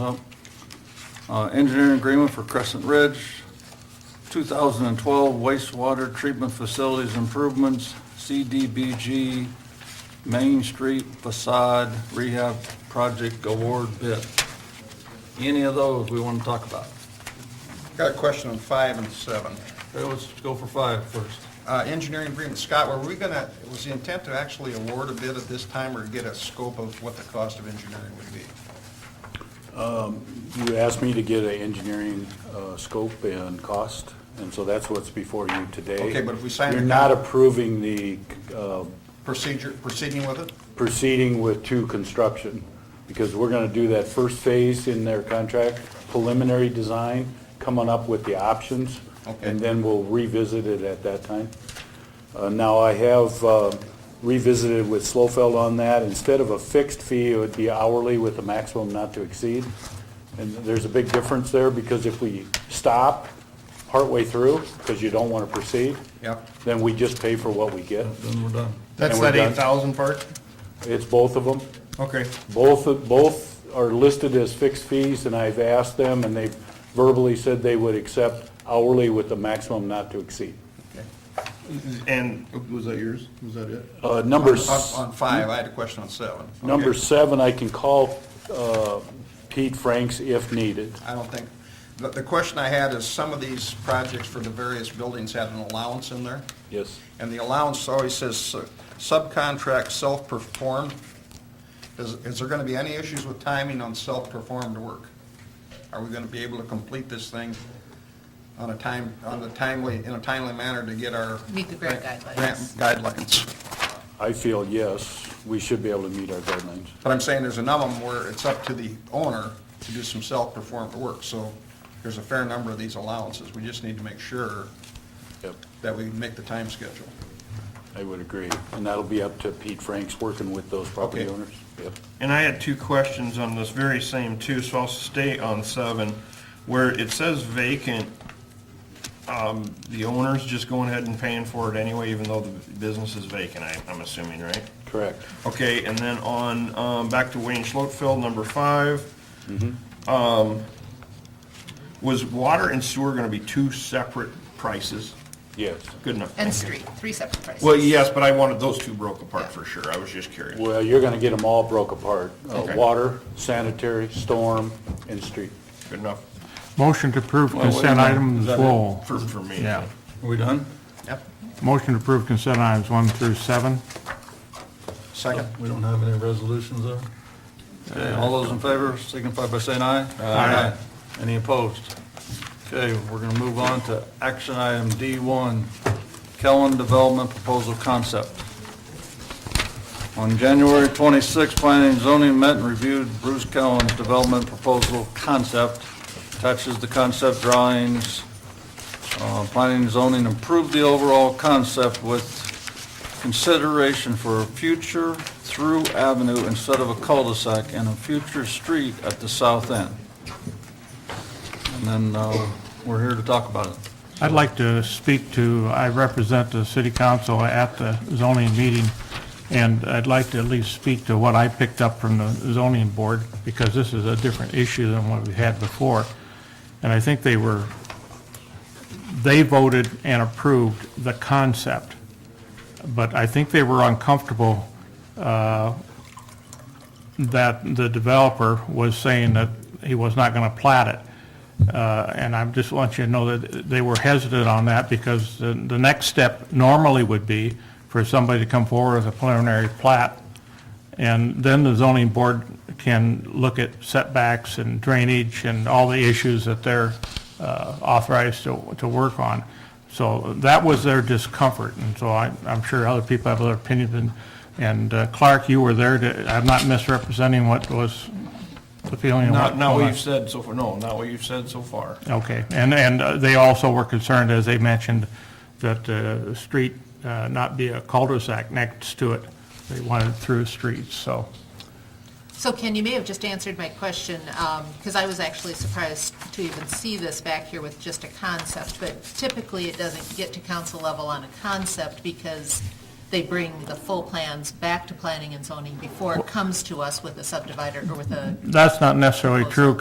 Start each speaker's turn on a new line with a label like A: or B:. A: Up. Uh, Engineering agreement for Crescent Ridge, 2012 wastewater treatment facilities improvements, CDBG Main Street facade rehab project award bid. Any of those we want to talk about?
B: Got a question on five and seven.
A: Okay, let's go for five first.
B: Uh, Engineering agreement, Scott, were we gonna, was the intent to actually award a bid at this time or get a scope of what the cost of engineering would be?
C: You asked me to get an engineering uh, scope and cost, and so that's what's before you today.
B: Okay, but if we sign it
C: You're
B: now-
C: not approving the uh,
B: Procedure, proceeding with it?
C: proceeding with two construction, because we're going to do that first phase in their contract, preliminary design, coming up with the options,
B: Okay.
C: and then we'll revisit it at that time. Uh, Now, I have uh, revisited with Slofeld on that. Instead of a fixed fee, it would be hourly with a maximum not to exceed. And there's a big difference there, because if we stop partway through, because you don't want to proceed,
B: Yep.
C: then we just pay for what we get.
A: Then we're done.
B: That's
C: And we're
B: that
C: done.
B: eight thousand part?
C: It's both of them.
B: Okay.
C: Both, both are listed as fixed fees, and I've asked them, and they've verbally said they would accept hourly with the maximum not to exceed.
D: And. Was that yours? Was that it?
C: Uh, Number, s-
B: On on five, I had a question on seven. Okay.
C: number seven, I can call uh, Pete Franks if needed.
B: I don't think, the, the question I had is some of these projects for the various buildings had an allowance in there?
C: Yes.
B: And the allowance always says uh, subcontract self-performed. Is, is there gonna be any issues with timing on self-performed work? Are we gonna be able to complete this thing on a time, on a timely, in a timely manner to get our?
E: Meet the grant guidelines.
B: grant guidelines.
C: I feel yes, we should be able to meet our guidelines.
B: But I'm saying there's enough of them where it's up to the owner to do some self-performed work, so there's a fair number of these allowances. We just need to make sure
C: Yep,
B: that we make the time schedule.
C: I would agree. And that'll be up to Pete Franks, working with those property
B: Okay.
C: owners. Yep.
D: And I had two questions on this very same two, so I'll stay on seven. Where it says vacant, um, the owner's just going ahead and paying for it anyway, even though the business is vacant, I, I'm assuming, right?
C: Correct.
D: Okay, and then on, um, back to Wayne Schlotfeld, number five. Um, was water and sewer gonna be two separate prices?
C: Yes.
D: Good enough.
E: And
D: thank you.
E: street, three separate prices.
D: Well, yes, but I wanted those two broke apart for sure. I was just curious.
C: Well, you're going to get them all broke apart. Uh,
D: Okay.
C: Water, sanitary, storm, and street.
D: Good enough
F: Motion to approve
A: Well, wait a
F: consent
A: minute.
F: items
A: Is that it?
F: full.
D: for, for me.
F: Oh. Yeah.
A: Are we done?
B: Yep.
F: Motion to approve consent items one through seven.
B: Second?
A: We don't have any resolutions there? Okay, all those in favor signify by saying aye. Aye. Any opposed? Okay, we're gonna move on to action item D1, Kellen Development Proposal Concept. On January 26, Planning and Zoning met and reviewed Bruce Kellen's development proposal concept, attaches the concept drawings. Uh, Planning and Zoning improved the overall concept with consideration for a future through avenue instead of a cul-de-sac and a future street at the south end. And then uh, we're here to talk about it.
F: I'd like to speak to, I represent the city council at the zoning meeting, and I'd like to at least speak to what I picked up from the zoning board, because this is a different issue than what we had before. And I think they were, they voted and approved the concept, but I think they were uncomfortable that the developer was saying that he was not going to plat it. Uh, And I just want you to know that they were hesitant on that because the, the next step normally would be for somebody to come forward with a preliminary plat. And then the zoning board can look at setbacks and drainage and all the issues that they're uh, authorized to, to work on. So that was their discomfort, and so I, I'm sure other people have other opinions. And- And uh, Clark, you were there to, I'm not misrepresenting what was the feeling. of
D: Not,
F: what-
D: not what you've said so far, no, not what you've said so far.
F: Okay, and, and uh, they also were concerned, as they mentioned, that the street uh, not be a cul-de-sac next to it. They wanted through streets, so.
E: So Ken, you may have just answered my question, because I was actually surprised to even see this back here with just a concept, but typically it doesn't get to council level on a concept because they bring the full plans back to planning and zoning before it comes to us with a subdivider or with a
F: That's not necessarily true,